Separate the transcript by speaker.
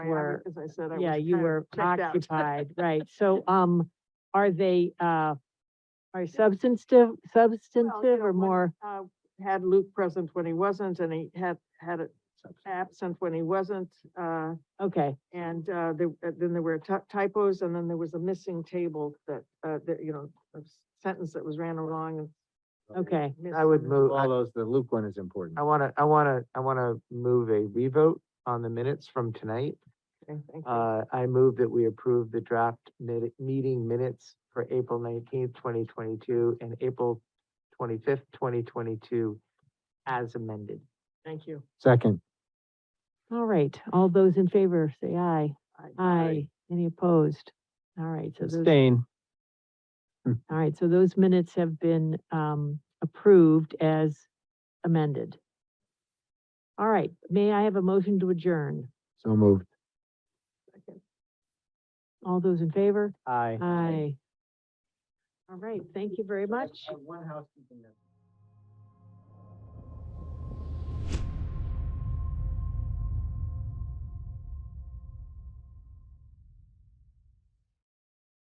Speaker 1: were-
Speaker 2: As I said, I was.
Speaker 1: Yeah, you
Speaker 2: kind of
Speaker 1: were
Speaker 2: checked out.
Speaker 1: occupied, right, so, um, are they, uh, are substantive, substantive
Speaker 2: know,
Speaker 1: or
Speaker 2: one-
Speaker 1: more?
Speaker 2: Uh, Had Luke present when he wasn't, and he had, had it absent when he wasn't, uh,
Speaker 1: Okay,
Speaker 2: and, uh, there, uh, then there were ty- typos, and then there was a missing table that, uh, that, you know, a s- sentence that was ran along and.
Speaker 1: okay,
Speaker 2: missed
Speaker 3: I would
Speaker 2: and-
Speaker 3: move, I,
Speaker 4: follows, the Luke one is important.
Speaker 3: I wanna, I wanna, I wanna move a revote on the minutes from tonight.
Speaker 2: Okay, thank you.
Speaker 3: Uh, I move that we approve the draft mid, meeting minutes for April nineteenth, twenty twenty-two and April twenty-fifth, twenty twenty-two as amended.
Speaker 2: Thank you.
Speaker 4: Second,
Speaker 1: all right, all those in favor, say aye.
Speaker 2: I-
Speaker 1: Aye, any opposed? All right, so those,
Speaker 3: Abstain.
Speaker 1: all right, so those minutes have been, um, approved as amended. All right, may I have a motion to adjourn?
Speaker 4: so moved.
Speaker 1: All those in favor?
Speaker 3: Aye.
Speaker 1: Aye. All right, thank you very much.
Speaker 3: One housekeeping note.